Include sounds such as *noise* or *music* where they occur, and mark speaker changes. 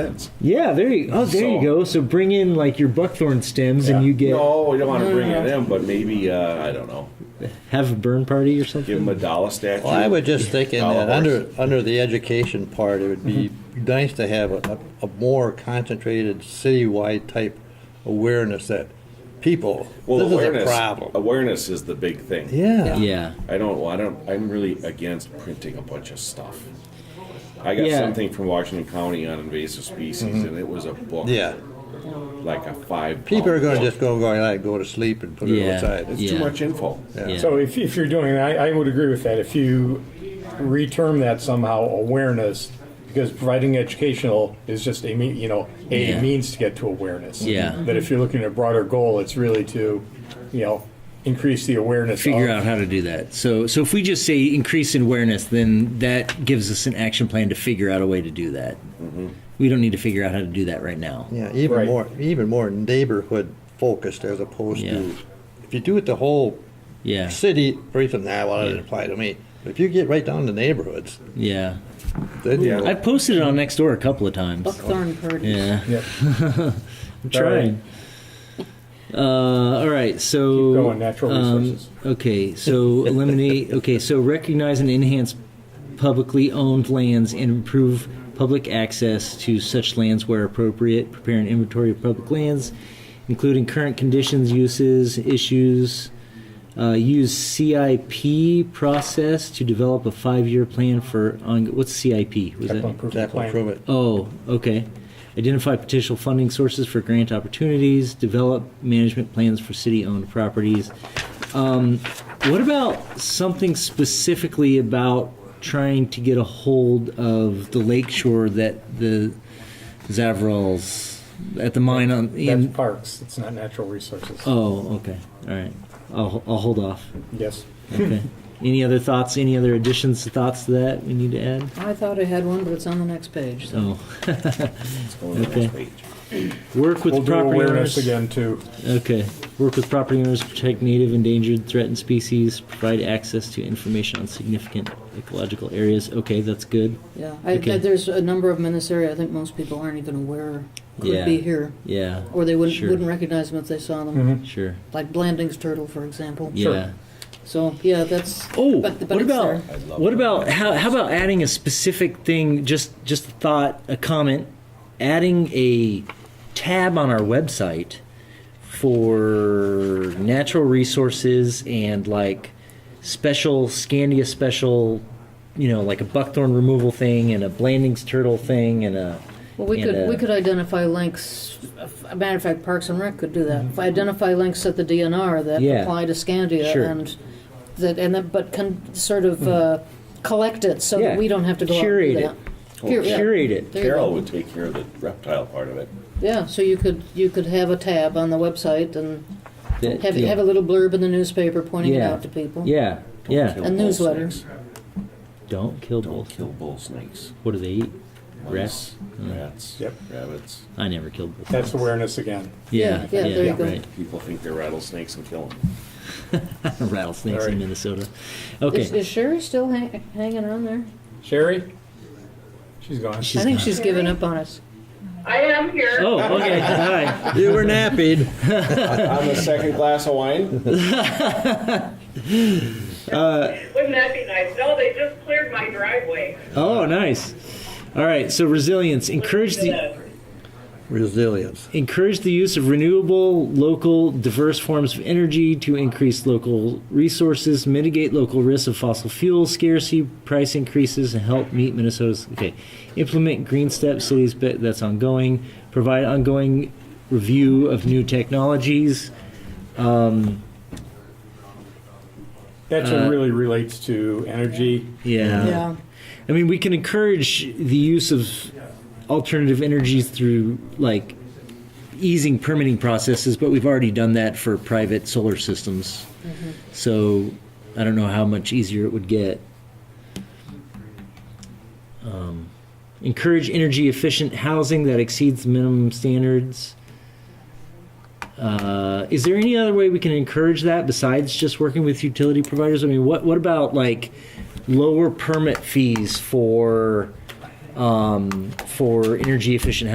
Speaker 1: sense.
Speaker 2: Yeah, there you. Oh, there you
Speaker 1: So-
Speaker 2: go. So bring in like your buckthorn stems, and you get
Speaker 1: no. We don't want to bring it
Speaker 3: Mm-hmm.
Speaker 1: in, but maybe uh, I don't know.
Speaker 2: have a burn party or
Speaker 1: Give
Speaker 2: something.
Speaker 1: them a dollar statue.
Speaker 4: Well, I was just thinking
Speaker 1: Dollar
Speaker 4: that
Speaker 1: horse.
Speaker 4: under, under the education part, it would be nice to have a, a more concentrated citywide type awareness that people,
Speaker 1: Well,
Speaker 4: this
Speaker 1: awareness.
Speaker 4: is a problem.
Speaker 1: Awareness is the big thing.
Speaker 4: Yeah.
Speaker 2: Yeah.
Speaker 1: I don't. I don't. I'm really against printing a bunch of stuff. I got
Speaker 2: Yeah. Mm-hmm.
Speaker 1: something from Washington County on invasive species, and it was a book.
Speaker 4: Yeah.
Speaker 1: Like a five.
Speaker 4: People are going to
Speaker 1: pound
Speaker 4: just go, go, like, go to sleep and put
Speaker 2: Yeah.
Speaker 4: it aside.
Speaker 1: It's
Speaker 2: Yeah.
Speaker 1: too much info.
Speaker 2: Yeah.
Speaker 5: So if, if you're doing, I, I would agree with that, if you reterm that somehow awareness, because providing educational is just a mean, you know, a
Speaker 2: Yeah.
Speaker 5: means to get to awareness.
Speaker 2: Yeah.
Speaker 5: But if you're looking at a broader goal, it's really to, you know, increase the awareness.
Speaker 2: Figure
Speaker 1: Oh.
Speaker 5: of-
Speaker 2: out how to do that. So, so if we just say increase in awareness, then that gives us an action plan to figure out a way to do that.
Speaker 1: Mm-hmm.
Speaker 2: We don't need to figure out how to do that right now.
Speaker 4: Yeah, even
Speaker 5: Right.
Speaker 4: more, even more neighborhood focused as opposed
Speaker 2: Yeah.
Speaker 4: to, if you do it the whole
Speaker 2: Yeah.
Speaker 4: city, for instance, nah, well, it doesn't apply to me. But if you get right down to neighborhoods,
Speaker 2: Yeah.
Speaker 4: then you
Speaker 1: Yeah.
Speaker 4: know,
Speaker 2: I posted it on Nextdoor a couple of times.
Speaker 3: Buckthorn parties.
Speaker 2: Yeah.
Speaker 5: Yep.
Speaker 2: *laughs* I'm
Speaker 5: Sorry.
Speaker 2: trying. Uh, all right, so
Speaker 5: Keep going, natural
Speaker 2: um,
Speaker 5: resources.
Speaker 2: okay,
Speaker 5: *laughs*
Speaker 2: so eliminate. Okay, so recognize and enhance publicly owned lands and improve public access to such lands where appropriate. Prepare an inventory of public lands, including current conditions, uses, issues. Uh, use CIP process to develop a five-year plan for on, what's CIP? Was
Speaker 5: Capital
Speaker 2: that
Speaker 5: improvement
Speaker 4: that will
Speaker 5: plan.
Speaker 4: prove it.
Speaker 2: Oh, okay. Identify potential funding sources for grant opportunities. Develop management plans for city-owned properties. Um, what about something specifically about trying to get a hold of the lakeshore that the Zavrals at the mine on?
Speaker 5: That's
Speaker 2: In,
Speaker 5: parks, it's not natural resources.
Speaker 2: oh, okay. All right. I'll, I'll hold off.
Speaker 5: Yes.
Speaker 2: Okay. any other thoughts? Any other additions, thoughts to that we need to add?
Speaker 3: I thought I had one, but it's on the next page. so-
Speaker 2: Oh,
Speaker 1: It's going on the
Speaker 2: Okay.
Speaker 1: next page.
Speaker 2: work with
Speaker 5: We'll do
Speaker 2: property owners.
Speaker 5: awareness again too.
Speaker 2: Okay. Work with property owners to protect native, endangered, threatened species. Provide access to information on significant ecological areas. Okay, that's good.
Speaker 3: Yeah, I,
Speaker 2: Okay.
Speaker 3: there's a number of them in this area. I think most people aren't even aware could
Speaker 2: Yeah.
Speaker 3: be here,
Speaker 2: Yeah.
Speaker 3: or they wouldn't
Speaker 2: Sure.
Speaker 3: wouldn't recognize them if they saw them.
Speaker 2: Sure.
Speaker 3: Like Blanding's turtle, for example.
Speaker 2: Yeah.
Speaker 3: So yeah, that's.
Speaker 2: Oh,
Speaker 3: but, but
Speaker 2: what
Speaker 3: it's
Speaker 2: about
Speaker 3: there.
Speaker 1: I love
Speaker 2: what
Speaker 1: it.
Speaker 2: about how how about adding a specific thing? Just just a thought, a comment, adding a tab on our website for natural resources and like special Scandia special, you know, like a buckthorn removal thing and a Blandings turtle thing and a.
Speaker 3: Well, we
Speaker 2: and uh,
Speaker 3: could
Speaker 2: a-
Speaker 3: we could identify links. As a matter of fact, Parks and Rec could do that.
Speaker 2: Mm-hmm.
Speaker 3: If identify links at the DNR that
Speaker 2: Yeah.
Speaker 3: apply to Scandia
Speaker 2: Sure.
Speaker 3: and that and that, but can sort of
Speaker 2: Mm-hmm.
Speaker 3: uh, collect it so
Speaker 2: Yeah.
Speaker 3: that we don't have to go
Speaker 2: Curate it.
Speaker 3: out and do that. Cur- yeah.
Speaker 2: curate it.
Speaker 3: There you
Speaker 1: Carol
Speaker 3: go.
Speaker 1: would take care of the reptile part of it.
Speaker 3: Yeah, so you could you could have a tab on the website and
Speaker 2: that-
Speaker 3: have
Speaker 2: yeah.
Speaker 3: have a little blurb in the newspaper pointing it
Speaker 2: Yeah.
Speaker 3: out to people.
Speaker 2: yeah, yeah.
Speaker 1: Kill
Speaker 3: And
Speaker 1: bull
Speaker 3: newsletters.
Speaker 1: snakes.
Speaker 2: Don't kill
Speaker 1: Don't
Speaker 2: bulls.
Speaker 1: kill bull snakes.
Speaker 2: What do they eat?
Speaker 1: Mice,
Speaker 2: Rats. Mm.
Speaker 1: Rats.
Speaker 5: Yep.
Speaker 1: Rabbits.
Speaker 2: I never killed bulls.
Speaker 5: That's awareness again.
Speaker 2: Yeah,
Speaker 3: Yeah, yeah, there you go.
Speaker 2: right.
Speaker 1: People think they're rattlesnakes and kill them.
Speaker 2: *laughs* rattlesnakes
Speaker 5: Sorry.
Speaker 2: in Minnesota.
Speaker 3: Is,
Speaker 2: Okay.
Speaker 3: is Sherry still hang, hanging on there?
Speaker 5: Sherry? She's gone.
Speaker 2: She's
Speaker 3: I think
Speaker 2: gone.
Speaker 3: she's given up on us.
Speaker 6: I am here.
Speaker 2: Oh, okay. Hi.
Speaker 4: You were napping.
Speaker 1: On the second glass of wine?
Speaker 6: Wouldn't that be nice? No, they just cleared my driveway.
Speaker 2: Oh, nice. All right. So resilience. Encourage the
Speaker 6: Uh,
Speaker 4: Resilience.
Speaker 2: encourage the use of renewable, local, diverse forms of energy to increase local resources, mitigate local risks of fossil fuel scarcity, price increases, and help meet Minnesota's. Okay. Implement green steps. Cities. But that's ongoing. Provide ongoing review of new technologies.
Speaker 5: That
Speaker 2: uh,
Speaker 5: really relates to energy.
Speaker 3: Yeah.
Speaker 2: I mean, we can encourage the use of alternative energies through like easing permitting processes, but we've already done that for private solar systems. So I don't know how much easier it would get. Um, encourage energy efficient housing that exceeds minimum standards. Uh, is there any other way we can encourage that besides just working with utility providers? I mean, what what about like lower permit fees for um, for energy efficient